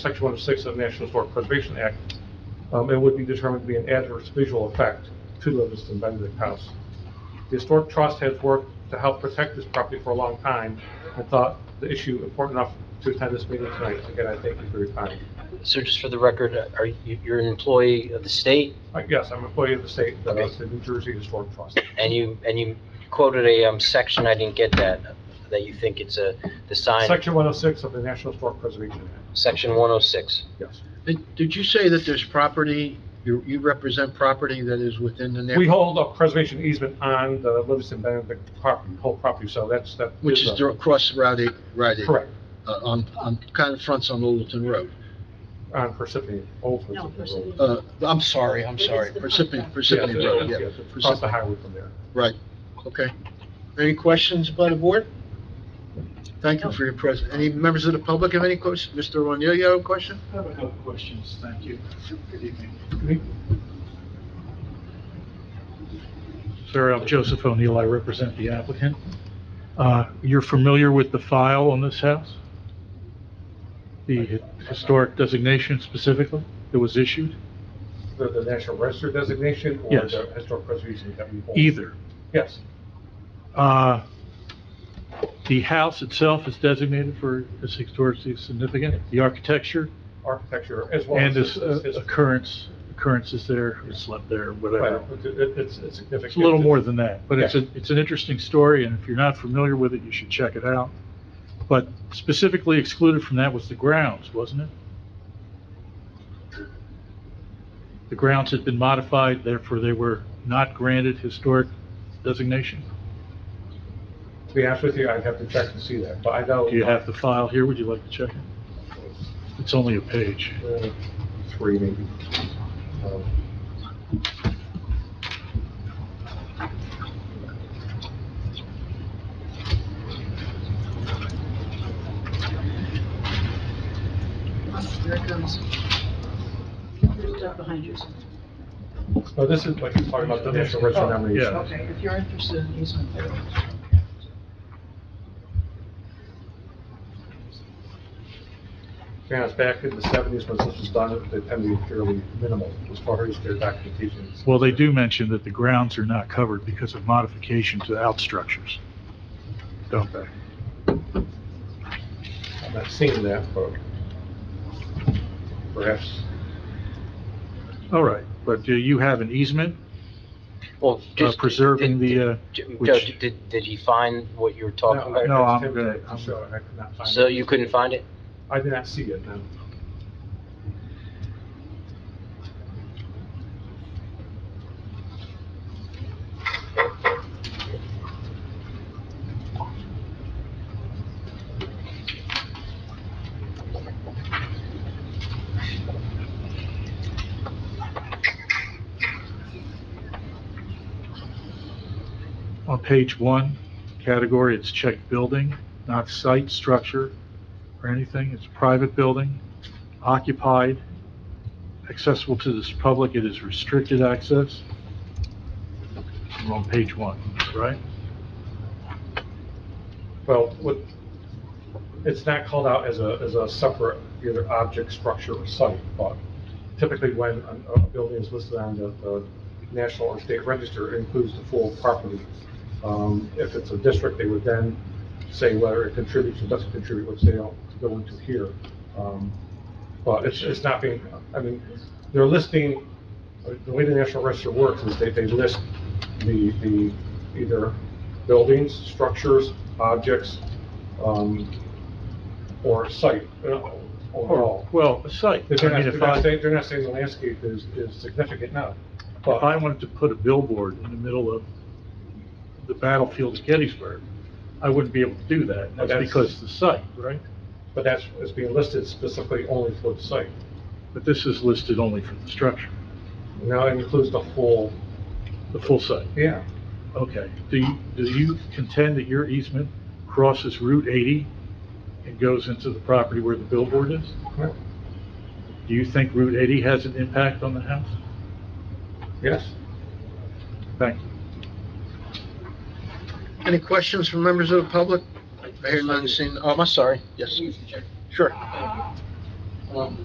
Section 106 of the National Historic Preservation Act, um, and would be determined to be an adverse visual effect to Livingston Benedict House. The Historic Trust has worked to help protect this property for a long time, and thought the issue important enough to attend this meeting tonight. Again, I thank you for your time. So just for the record, are you, you're an employee of the state, Uh, Yes, I'm an employee of the state, uh, Okay. the New Jersey Historic Trust. and you, and you quoted a, um, section, I didn't get that, that you think it's a, the sign, Section 106 of the National Historic Preservation Act, section one oh six. yes. Did did you say that there's property, you you represent property that is within the We neighborhood? hold a preservation easement on the Livingston Benedict property, whole property, so that's, that is... Which is a- dir- across Route 8, Route 8? Correct, uh, On, on, kind of fronts on Littleton Road. on Parsippany, Old No, Parsippany Road. Parsippany. Uh, I'm sorry, I'm It's sorry, the Parsippany, front. Parsippany Yes, Road, yeah. yes, it's Across the Parsippany- highway from there. Right, okay. Any questions by the board? Thank you for your presence. Any members of the public have any questions? Mr. O'Neill, you have a question? I have a couple questions, thank you. Good evening. Sir, I'm Joseph O'Neill, I represent the applicant. Uh, You're familiar with the file on this house? The historic designation specifically that was issued? The, the National Register designation or Yes. the historic preservation that we hold? Either. Yes, Uh, The house itself is designated for as historically significant, the architecture architecture as well and as... its uh, history. occurrence, occurrences there, who slept there, Right, whatever. it- it- it's, it's significant. It's a little more than that, but it's Yeah. a, it's an interesting story, and if you're not familiar with it, you should check it out. But specifically excluded from that was the grounds, wasn't it? The grounds had been modified, therefore they were not granted historic designation. To be honest with you, I'd have to check to see that, but I know... Do you have the file here? Would you like to check it? It's only a page. Uh, Three maybe. Um, Here it comes. There's stuff behind you. No, this is like you're talking about the National Register nomination. Oh, Yeah. Okay, if you're interested in easement there. Yeah, it's back in the seventies when this was done, they tend to be fairly minimal as far as their documentation. Well, they do mention that the grounds are not covered because of modification to outstructures, don't they? I'm not seeing that, but perhaps. All right, but do you have an easement? Well, just. uh, preserving did- the, uh, did- Joe, which- did, did he find what you were talking about? no, I'm Tim good. did, I'm sure, I could not find it. So you couldn't find it? I did not see it, no. On page one, category, it's checked building, not site, structure, or anything. It's a private building, occupied, accessible to this public, it is restricted access. We're on page one, right? Well, what, it's not called out as a, as a separate either object, structure, or site, but typically when a, a building is listed on the, the national or state register, it includes the full property. Um, if it's a district, they would then say whether it contributes or doesn't contribute, which they don't go into here. Um, But it's, it's not being, I mean, they're listing, the way the National Register works is they, they list the, the, either buildings, structures, objects, um, or site uh, overall. Well, a site. They're I not, mean, they're if not I- saying, they're not saying the landscape is, is significant now, If I but, wanted to put a billboard in the middle of the battlefield of Gettysburg, I wouldn't be able to do that. But That's that's- because the site, right? but that's, it's being listed specifically only for the site. But this is listed only for the structure, Now it includes the whole, the full site. yeah, Okay. Do you, do you contend that your easement crosses Route 80 and goes into the property where the billboard is? correct. Do you think Route 80 has an impact on the house? yes. Thank you. Any questions from members of the public? I hear none, seen, oh, I'm sorry, yes. Sure. Well,